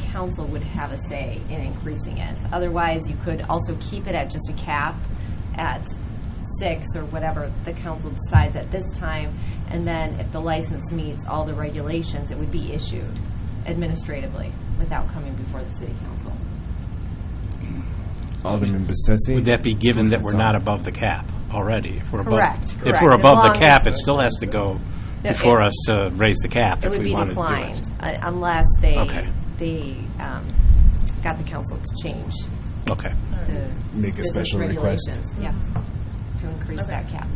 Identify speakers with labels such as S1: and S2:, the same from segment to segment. S1: council would have a say in increasing it. Otherwise, you could also keep it at just a cap at six or whatever the council decides at this time. And then if the license meets all the regulations, it would be issued administratively without coming before the city council.
S2: Alderman Bessetti.
S3: Would that be given that we're not above the cap already? If we're above-
S1: Correct,
S3: If
S1: correct.
S3: we're
S1: As
S3: above
S1: long
S3: the cap,
S1: as-
S3: it still has to go
S1: No, it-
S3: before us to raise the cap
S1: It
S3: if
S1: would
S3: we
S1: be
S3: wanted to do it.
S1: declined uh, unless they,
S3: Okay.
S1: they um, got the council to change
S3: Okay.
S1: the
S2: Make a
S1: business
S2: special request.
S1: regulations. Yeah, to increase that cap.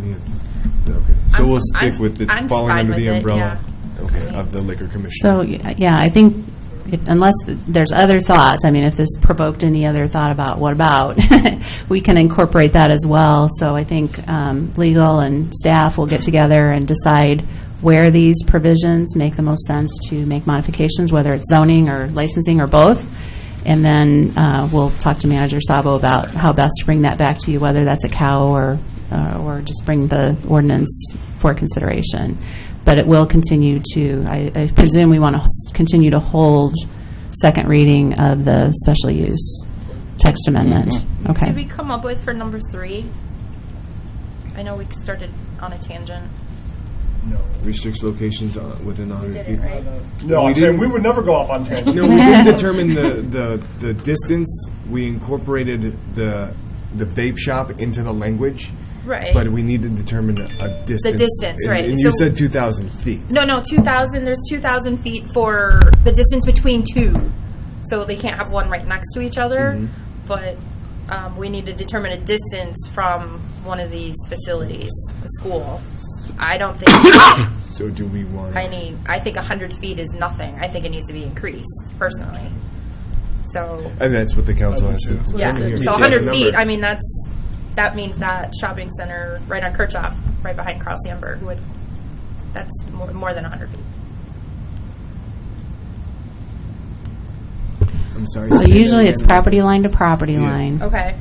S2: Any of- okay. So
S4: I'm-
S2: we'll stick
S4: I'm-
S2: with it
S4: I'm
S2: falling
S4: fine
S2: under
S4: with
S2: the
S4: it,
S2: umbrella okay, of the liquor
S5: So,
S2: commissioner.
S5: y- yeah, I think if- unless there's other thoughts, I mean, if this provoked any other thought about what about, we can incorporate that as well. So I think um, legal and staff will get together and decide where these provisions make the most sense to make modifications, whether it's zoning or licensing or both. And then uh, we'll talk to Manager Sabo about how best to bring that back to you, whether that's a cow or, uh, or just bring the ordinance for consideration. But it will continue to, I I presume we want to continue to hold second reading of the special use text amendment. Okay.
S4: Did we come up with for number three? I know we started on a tangent.
S2: Restricts locations uh, within 100 feet.
S6: No,
S2: We
S6: I'm saying
S2: didn't-
S6: we would never go off on tangents.
S2: No, we didn't determine the, the, the distance. We incorporated the, the vape shop into the language.
S4: Right.
S2: But we need to determine a distance.
S4: distance,
S2: And-
S4: right.
S2: And you
S4: So-
S2: said 2,000 feet.
S4: No, no, 2,000, there's 2,000 feet for the distance between two. So they can't have one right next to each other, but um, we need to determine a distance from one of these facilities, a school. I don't think
S2: So do we want?
S4: I need, I think 100 feet is nothing. I think it needs to be increased, personally. So,
S2: And that's what the council has to
S4: yeah,
S2: determine here.
S4: so 100 feet, I mean, that's, that means that shopping center right on Kirchhoff, right behind Carl Sandburg would, that's more more than 100 feet.
S2: I'm sorry.
S5: So
S2: say that
S5: usually it's
S2: again.
S5: property line to property
S2: Yeah.
S5: line.
S4: Okay.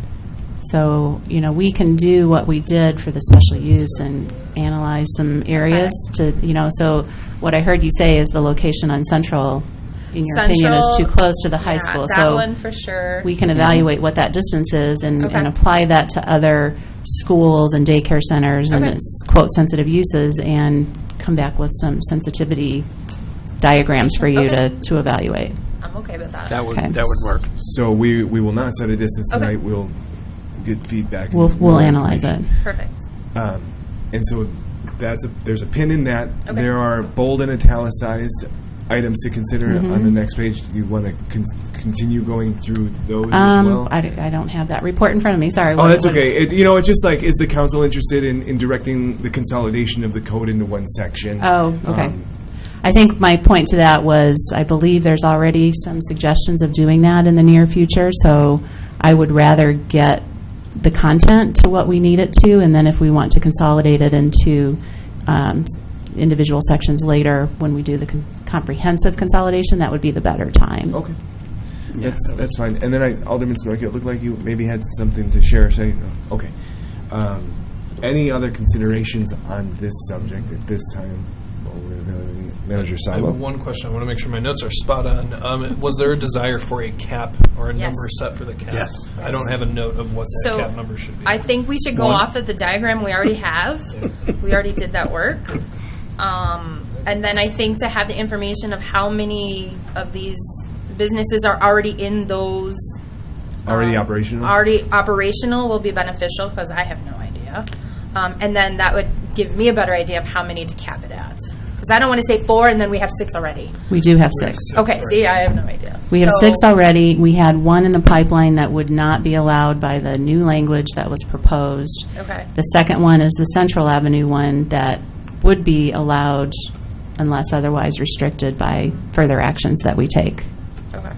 S5: So, you know, we can do what we did for the special use and analyze some areas to, you know, so what I heard you say is the location on Central, in your opinion, is too
S4: Central-
S5: close to the high
S4: yeah,
S5: school.
S4: That
S5: So
S4: one for sure.
S5: we can evaluate what that distance is and, and
S4: Okay.
S5: apply that to other schools and daycare centers and
S4: Okay.
S5: its quote sensitive uses and come back with some sensitivity diagrams for you to, to evaluate.
S4: I'm okay with that.
S3: That would,
S5: Okay.
S3: that would work.
S2: So we, we will not set a distance
S4: Okay.
S2: tonight. We'll get feedback. and
S5: We'll, we'll
S2: more
S5: analyze it.
S2: information.
S4: Perfect.
S2: Um, and so that's a, there's a pin in that.
S4: Okay.
S2: There are bold and italicized items to consider
S5: Mm-hmm.
S2: on the next page. You want to con- continue going through those as well?
S5: Um, I, I don't have that report in front of me, sorry.
S2: Oh,
S5: What-
S2: that's
S5: what-
S2: okay. It, you know, it's just like, is the council interested in, in directing the consolidation of the code into one section?
S5: Oh, okay.
S2: Um,
S5: I think my point to that was, I believe there's already some suggestions of doing that in the near future, so I would rather get the content to what we need it to, and then if we want to consolidate it into um, individual sections later, when we do the con- comprehensive consolidation, that would be the better time.
S2: Okay. That's, that's fine. And then I, Alderman Smoak, it looked like you maybe had something to share, say, okay. Um, Any other considerations on this subject at this time? while we're evaluating it? Manager
S7: I have
S2: Sabo?
S7: one question. I want to make sure my notes are spot on. Um, was there a desire for a cap or a
S4: Yes.
S7: number set for the cap? I don't have a note of what that
S4: So
S7: cap number should be.
S4: I think we should go
S7: One.
S4: off of the diagram we already have. we already did that work. Um, and then I think to have the information of how many of these businesses are already in those
S2: Already
S4: um,
S2: operational?
S4: Already operational will be beneficial because I have no idea. Um, and then that would give me a better idea of how many to cap it at. Because I don't want to say four and then we have six already.
S5: We do have six.
S4: Okay, see, I have no idea.
S5: We have
S4: So-
S5: six already. We had one in the pipeline that would not be allowed by the new language that was proposed.
S4: Okay.
S5: The second one is the Central Avenue one that would be allowed unless otherwise restricted by further actions that we take.
S4: Okay.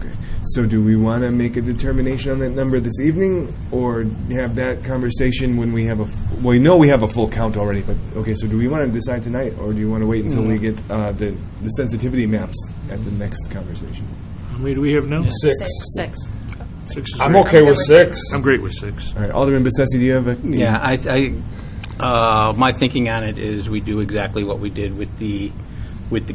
S2: Okay. So do we want to make a determination on that number this evening, or have that conversation when we have a, f- well, we know we have a full count already, but, okay, so do we want to decide tonight, or do you want to wait until we
S7: Mm.
S2: get uh, the the sensitivity maps at the next conversation?
S8: How many do we have now?
S7: six.
S5: Six.
S8: Six is
S6: I'm
S8: great.
S6: okay with six.
S8: I'm great with six.
S2: All right, Alderman Bessetti, do you have a?
S3: Yeah, I, I, uh, my thinking on it is we do exactly what we did with the, with the